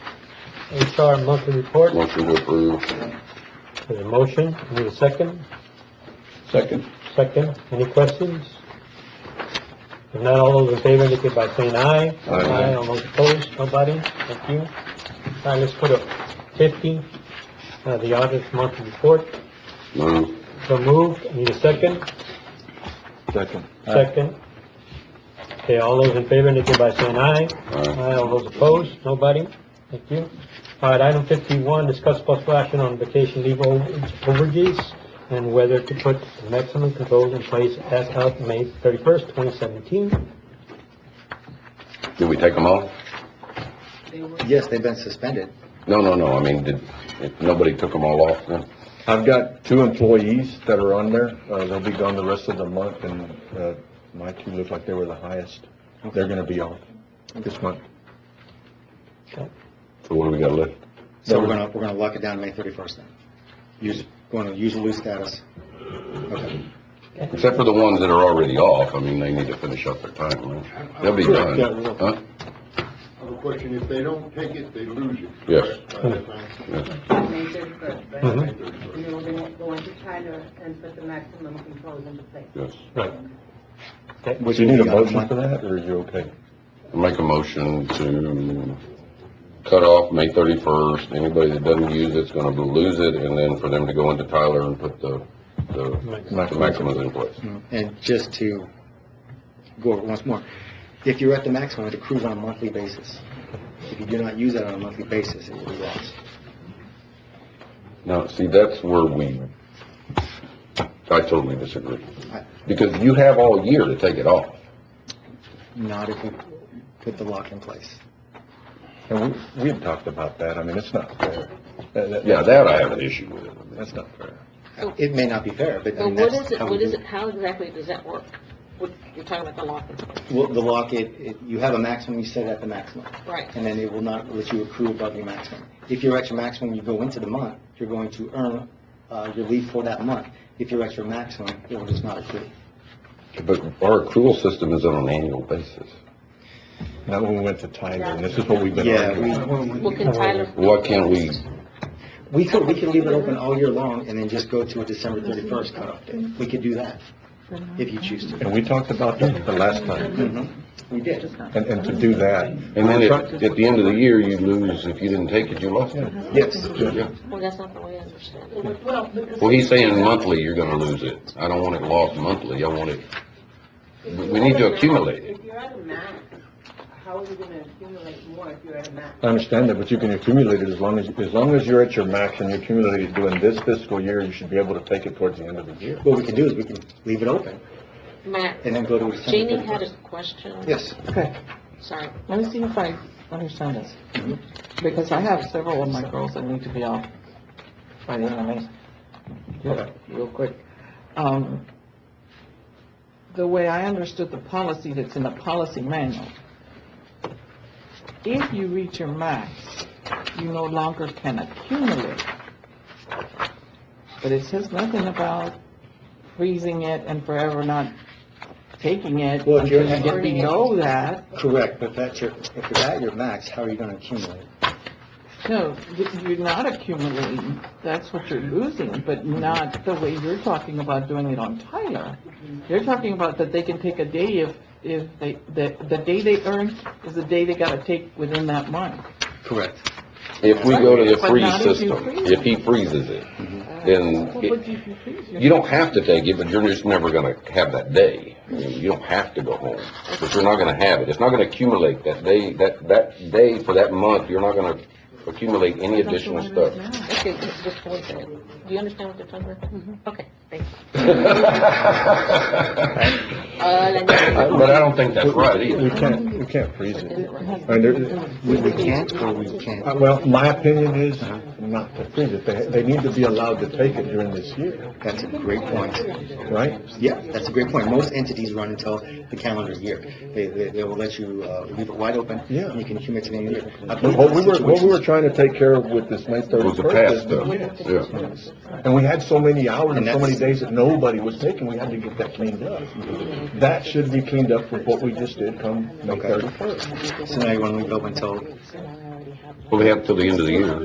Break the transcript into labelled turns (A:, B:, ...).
A: HR monthly report,
B: Motion to approve.
A: there's a motion, need a second?
B: Second.
A: Second, any questions? If not, all those in favor, indicate by saying aye.
B: Aye.
A: All those opposed, nobody, thank you. All right, let's put up fifty, uh, the audit monthly report,
B: Move.
A: so moved, need a second?
C: Second.
A: Second. Okay, all those in favor, indicate by saying aye.
B: Aye.
A: All those opposed, nobody? Thank you. All right, item fifty-one, discuss possible action on vacation leave o- overages and whether to put maximum controls in place as of May thirty-first, twenty seventeen.
B: Did we take them all?
D: Yes, they've been suspended.
B: No, no, no, I mean, did, if nobody took them all off then?
C: I've got two employees that are on there. Uh, they'll be gone the rest of the month and, uh, my two look like they were the highest. They're gonna be off this month.
B: So what do we got left?
D: So we're gonna, we're gonna lock it down May thirty-first then. Use, gonna use or lose status. Okay.
B: Except for the ones that are already off, I mean, they need to finish up their time, right? They'll be
E: Correct,
B: done. Huh?
E: I have a question. If they don't take it, they lose it.
B: Yes.
E: correct? By that time?
F: May thirty-first, right?
A: Mhm.
E: May 31st.
F: And then we're gonna go into China and put the maximum controls into place.
B: Yes.
A: Right.
D: Which
C: Do you
D: will
C: need a
D: be on the
C: motion
D: month.
C: for that, or are you okay?
B: Make a motion to cut off May thirty-first, anybody that doesn't use it's gonna lose it, and then for them to go into Tyler and put the, the the maximums in place.
D: And just to go over it once more, if you're at the maximum, it accrues on a monthly basis. If you do not use that on a monthly basis, it will be lost.
B: Now, see, that's where we, I totally disagree.
D: I-
B: Because you have all year to take it off.
D: Not if we put the lock in place.
C: And we, we had talked about that. I mean, it's not fair. That- that-
B: Yeah, that I have an issue with.
C: That's not fair.
D: It may not be fair, but I
G: So
D: mean,
G: Oh. what
D: that's
G: is it,
D: how we
G: what
D: do
G: is it, how exactly does that work? What, you're talking about the locker,
D: Well, the lock, it, it- you have a maximum, you set it at the maximum.
G: right?
D: and then it will not let you accrue above your maximum. If you're at your maximum, you go into the month, you're going to earn uh, your leave for that month. If you're at your maximum, it will just not accrue.
B: But our accrual system is on an annual basis.
C: Not when we went to Tyler, and this is what we've been
D: Yeah,
C: arguing.
D: we,
G: Well, can Tyler?
B: Why can't we,
D: we could, we could leave it open all year long and then just go to a December 31st cutoff date. We could do that, if you choose to.
C: And we talked about that the last time,
D: Mhm. We did.
C: and, and to do that.
B: and then at, at the end of the year, you lose, if you didn't take it, you lost it.
D: Yes.
B: Yeah.
G: Well, that's not the way I understand it.
B: Well, he's saying monthly, you're gonna lose it. I don't want it lost monthly, I want it, we need to accumulate it.
F: If you're at a max, how are you gonna accumulate more if you're at a max?
C: I understand that, but you can accumulate it as long as, as long as you're at your max and you accumulate it during this fiscal year, you should be able to take it towards the end of the year.
D: What we can do is we can leave it open
G: Matt,
D: and then go to a December
G: Jeannie had a
D: 31st.
G: question.
D: Yes.
H: Okay,
G: Sorry.
H: let me see if I understand this, because I have several of my girls that need to be off by the end of May. Real- Real quick. Um, the way I understood the policy that's in the policy manual, if you reach your max, you no longer can accumulate. But it says nothing about freezing it and forever not taking it
D: Well, if you're-
H: until you get below that.
D: Correct, but that's your, if you're at your max, how are you going to accumulate?
H: No, y- you're not accumulating, that's what you're losing, but not the way you're talking about doing it on Tyler. You're talking about that they can take a day if, if they, the, the day they earn is the day they gotta take within that month.
D: Correct.
B: If we go to the
H: But
B: freeze
H: not if you
B: system,
H: freeze it.
B: if he freezes it, then
H: Well,
B: it-
H: but you can freeze your-
B: You don't have to take it, but you're just never gonna have that day. I mean, You don't have to go home, but you're not gonna have it. It's not gonna accumulate that day, that, that day for that month, you're not gonna accumulate any additional stuff.
G: Okay, ju- just wait a second. Do you understand what they're talking about? Okay, thank you.
B: But
G: All I need to know-
B: I don't think that's right
C: We
B: either.
C: can't, we can't freeze it. I mean, there-
D: We we can't or we can't.
C: uh, well, my opinion is not to freeze it. They, they need to be allowed to take it during this year,
D: That's a great point.
C: right?
D: Yeah, that's a great point. Most entities run until the calendar year. They, they, they will let you, uh, leave it wide open.
C: Yeah.
D: and You can commit to the end of the year. I believe
C: What we were,
D: that's
C: what we were
D: situations-
C: trying to take care of with this May
B: was the
C: thirty-first
B: past
C: is the
B: stuff,
C: kids.
B: yeah.
C: And we had so many hours and
D: And
C: so many
D: that's-
C: days that nobody was taking, we had to get that cleaned up. That should be cleaned up with what we just did come May
D: Okay.
C: thirty-first.
D: So now you want to leave it open until
B: Well, they have till the end of the year.